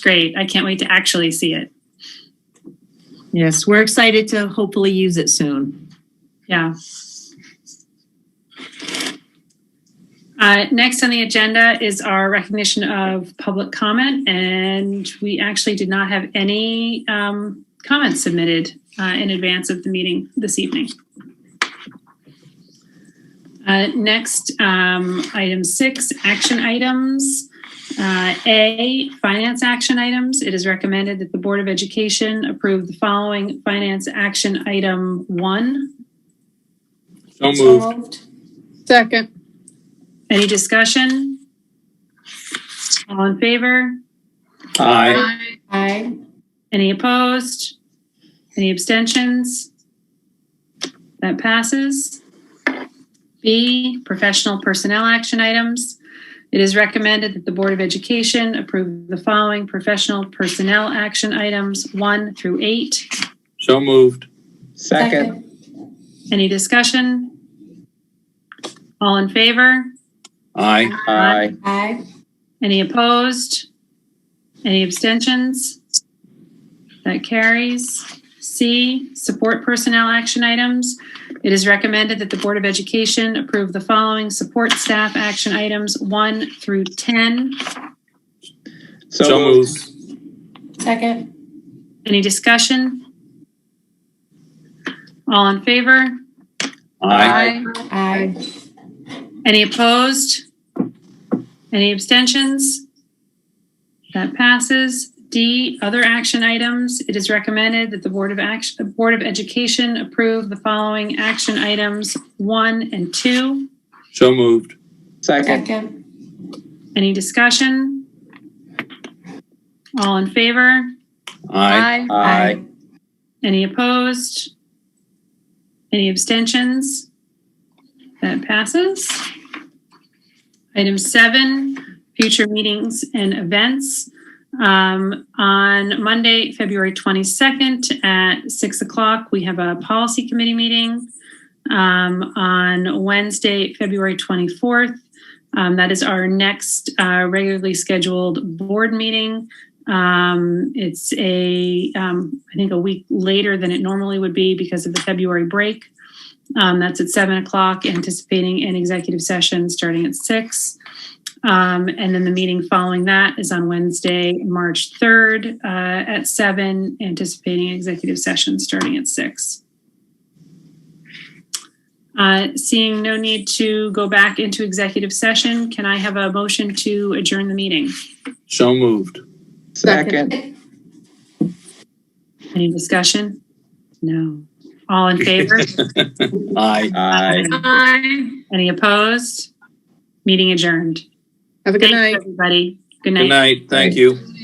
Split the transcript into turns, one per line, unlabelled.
great. I can't wait to actually see it.
Yes, we're excited to hopefully use it soon.
Yeah. Uh, next on the agenda is our recognition of public comment, and we actually did not have any um, comments submitted uh, in advance of the meeting this evening. Uh, next, um, item six, action items. Uh, A, finance action items. It is recommended that the Board of Education approve the following finance action item one,
So moved.
Second.
Any discussion? All in favor?
Aye.
Aye.
Any opposed? Any abstentions? That passes. B, professional personnel action items. It is recommended that the Board of Education approve the following professional personnel action items, one through eight.
So moved.
Second.
Any discussion? All in favor?
Aye.
Aye. Any opposed? Any abstentions? That carries. C, support personnel action items. It is recommended that the Board of Education approve the following support staff action items 1 through 10.
So moved.
Second.
Any discussion? All in favor?
Aye.
Aye.
Any opposed? Any abstentions? That passes. D, other action items. It is recommended that the Board of Action, the Board of Education approve the following action items one and two.
So moved.
Second.
Any discussion? All in favor?
Aye.
Aye.
Any opposed? Any abstentions? That passes. Item seven, future meetings and events. Um, on Monday, February 22nd at 6 o'clock, we have a policy committee meeting. Um, on Wednesday, February 24th, um, that is our next uh, regularly scheduled board meeting. Um, it's a, um, I think a week later than it normally would be because of the February break. Um, that's at seven o'clock, anticipating an executive session starting at six. Um, and then the meeting following that is on Wednesday, March 3rd uh, at seven, anticipating executive session starting at six. Uh, seeing no need to go back into executive session, can I have a motion to adjourn the meeting?
So moved.
Second.
Any discussion? No. All in favor?
Aye.
Aye.
Aye.
Any opposed? Meeting adjourned.
Have a good
Thanks,
night.
everybody. Good
Good
night.
night. Thank you.